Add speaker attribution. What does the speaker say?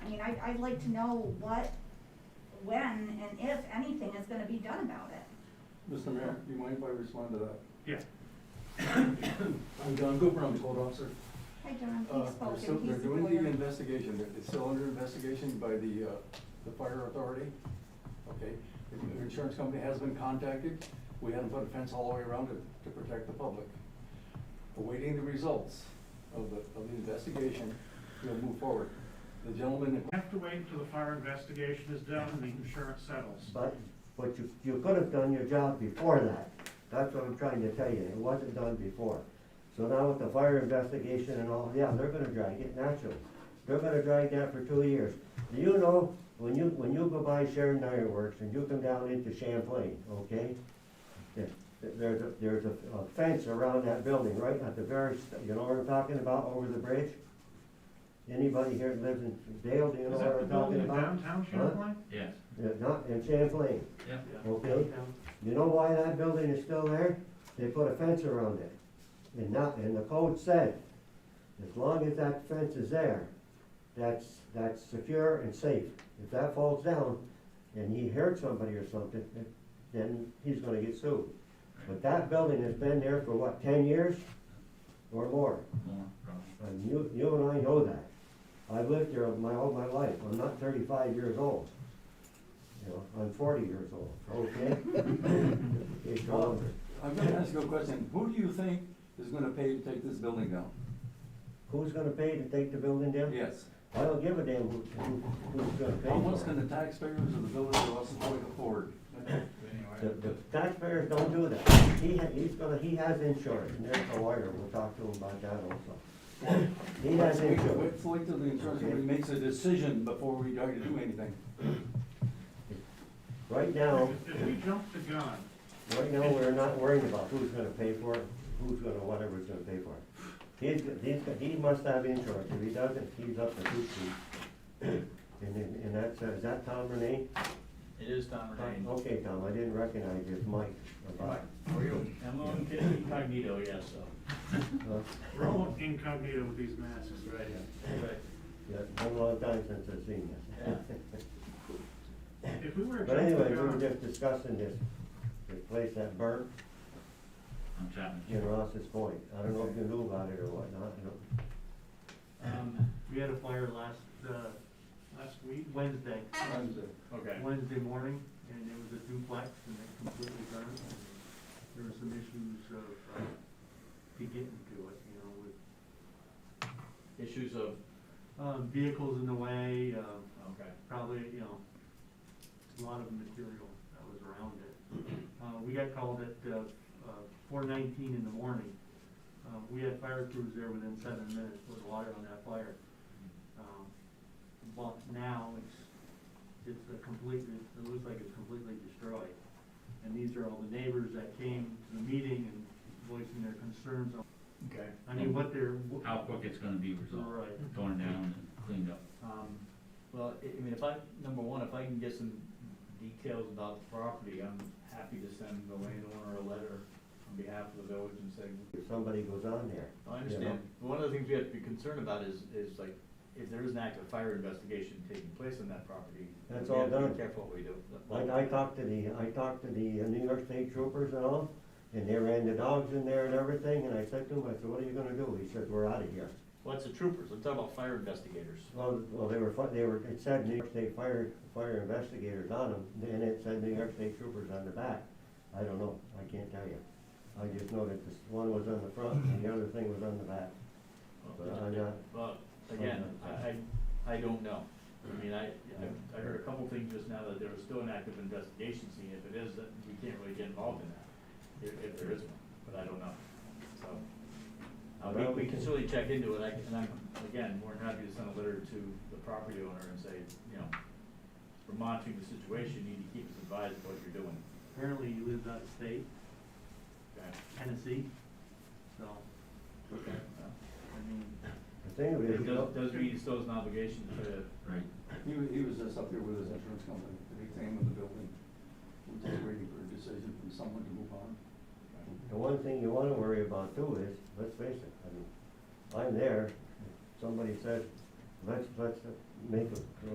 Speaker 1: I, I'd like to know what, when, and if anything is gonna be done about it.
Speaker 2: Mr. Mayor, do you mind if I respond to that?
Speaker 3: Yeah.
Speaker 2: I'm Don Cooper, I'm code officer.
Speaker 1: Hi, John,
Speaker 2: Uh,
Speaker 1: he
Speaker 2: they're
Speaker 1: spoke
Speaker 2: still-
Speaker 1: and he's the
Speaker 2: They're doing the
Speaker 1: lawyer.
Speaker 2: investigation, They're- it's still under investigation by the, uh, the fire authority, okay? The the insurance company has been contacted, we had them put a fence all the way around it to protect the public. Awaiting the results of the, of the investigation, we'll move forward. The gentleman,
Speaker 3: We Have to wait until the fire investigation is done and the insurance settles.
Speaker 4: But, but you, you could have done your job before that. That's what I'm trying to tell you. It wasn't done before. So now with the fire investigation and all, yeah, they're gonna drag it naturally. They're gonna drag that for two years. Do you know, when you, when you go by Sharon Ironworks and you come down into Champlain, okay? there- There's, a- there's a a fence around that building, right at the very, st- you know what I'm talking about, over the bridge? Anybody here that lives in Dale, do you know
Speaker 3: Is
Speaker 4: what
Speaker 3: that the
Speaker 4: I'm talking
Speaker 3: building in
Speaker 4: about?
Speaker 3: downtown
Speaker 4: Huh?
Speaker 3: Champlain?
Speaker 5: Yes,
Speaker 4: Yeah, Not in Champlain.
Speaker 5: yeah.
Speaker 4: Okay, you know why that building is still there? They put a fence around it. And not, and the code said, as long as that fence is there, that's, that's secure and safe. If that falls down and he hurt somebody or something, then- then he's gonna get sued. But that building has been there for what, ten years or more?
Speaker 5: More, probably.
Speaker 4: And you, you and I know that. I've lived here my, all my life. I'm not thirty-five years old. You know, I'm forty years old, okay? It's older.
Speaker 2: I'm gonna ask you a question, who do you think is gonna pay to take this building down?
Speaker 4: Who's gonna pay to take the building down?
Speaker 2: Yes.
Speaker 4: I don't give a damn who, who, who's gonna pay
Speaker 2: How much
Speaker 4: for
Speaker 2: can
Speaker 4: it.
Speaker 2: the taxpayers of the village of Westlake afford?
Speaker 4: The, the taxpayers don't do that. He, ha- he's gonna, he has insurance, and there's a lawyer, we'll talk to him about that also. He has
Speaker 2: Wait-
Speaker 4: insurance.
Speaker 2: Wait till the insurance company makes a decision before we try to do anything.
Speaker 4: Right now,
Speaker 3: If if we jump the gun,
Speaker 4: Right now, we're not worrying about who's gonna pay for it, who's gonna, whatever's gonna pay for it. He's, he's, he must have insurance, if he doesn't, he's up to two feet. And, then- and that's, uh, is that Tom Renee?
Speaker 5: It is Tom Renee.
Speaker 4: Okay, Tom, I didn't recognize his mic. about-
Speaker 5: I'm on incognito, yes, so.
Speaker 4: uh,
Speaker 3: we're all incognito with these masks.
Speaker 5: Right,
Speaker 4: Yeah, it's been a long time since I've seen this.
Speaker 3: If we were to
Speaker 4: But
Speaker 3: jump
Speaker 4: anyway,
Speaker 3: the
Speaker 4: we were
Speaker 3: gun,
Speaker 4: just discussing this, this place that burnt
Speaker 5: I'm Chapman.
Speaker 4: in Ross's Point. I don't know if you knew about it or whatnot, you know.
Speaker 6: Um, we had a fire last, uh,
Speaker 3: last week,
Speaker 6: Wednesday,
Speaker 5: Okay.
Speaker 6: Wednesday morning, and it was a duplex and it completely burned. There were some issues of, uh, to getting to it, you know, with,
Speaker 5: Issues of,
Speaker 6: um, vehicles in the way, um,
Speaker 5: okay.
Speaker 6: probably, you know, a lot of material that was around it. Uh, we got called at, uh, uh, four nineteen in the morning. Uh, we had fire crews there within seven minutes with water on that fire. Um, But now it's, it's a completely, it looks like it's completely destroyed. And these are all the neighbors that came to the meeting and voicing their concerns on,
Speaker 5: Okay.
Speaker 6: I mean, what they're.
Speaker 5: How quick it's gonna be resolved,
Speaker 6: Right.
Speaker 5: torn down and cleaned up.
Speaker 7: Um, well, I, I mean, if I, number one, if I can get some details about the property, I'm happy to send the landowner a letter on behalf of the village and say,
Speaker 4: If somebody goes on there. you
Speaker 7: I
Speaker 4: know.
Speaker 7: understand, one of the things we have to be concerned about is, is like, if there is an active fire investigation taking place on that property.
Speaker 4: That's
Speaker 7: we
Speaker 4: all
Speaker 7: have to be
Speaker 4: done.
Speaker 7: Careful what we do.
Speaker 4: I, I talked to the, I talked to the uh, New York State troopers and all, and they ran the dogs in there and everything, and I said to him, I said, what are you gonna do? He said, we're out of here.
Speaker 7: Well, it's the troopers, I'm talking about fire investigators.
Speaker 4: Well, well, they were, fi- they were, it said New York State Fire, Fire Investigators on them, and it said New York State Troopers on the back. I don't know, I can't tell you. I just know that this, one was on the front and the other thing was on the back. But I'm not-
Speaker 7: Well, again, I, I, I don't know. I mean, I, I- I heard a couple things just now that there was still an active investigation scene. If it is, then we can't really get involved in that, if, if there is one, but I don't know, so. Uh,
Speaker 4: Well,
Speaker 7: we,
Speaker 4: we
Speaker 7: we can
Speaker 4: can-
Speaker 7: certainly check into it, I, and I'm, again, more than happy to send a letter to the property owner and say, you know, we're monitoring the situation, you need to keep us advised of what you're doing,
Speaker 6: Apparently he lives out of state.
Speaker 7: okay?
Speaker 6: Tennessee, so,
Speaker 7: Okay.
Speaker 6: I mean,
Speaker 4: The thing of it
Speaker 7: It
Speaker 4: is,
Speaker 7: does, does mean it's still an obligation to
Speaker 5: Right.
Speaker 2: He, wa- he was just up there with his insurance company, they examined the building. We're just waiting for a decision from someone to move on.
Speaker 4: The one thing you wanna worry about too is, let's face it, I mean, I'm there, somebody says, let's, let's make a,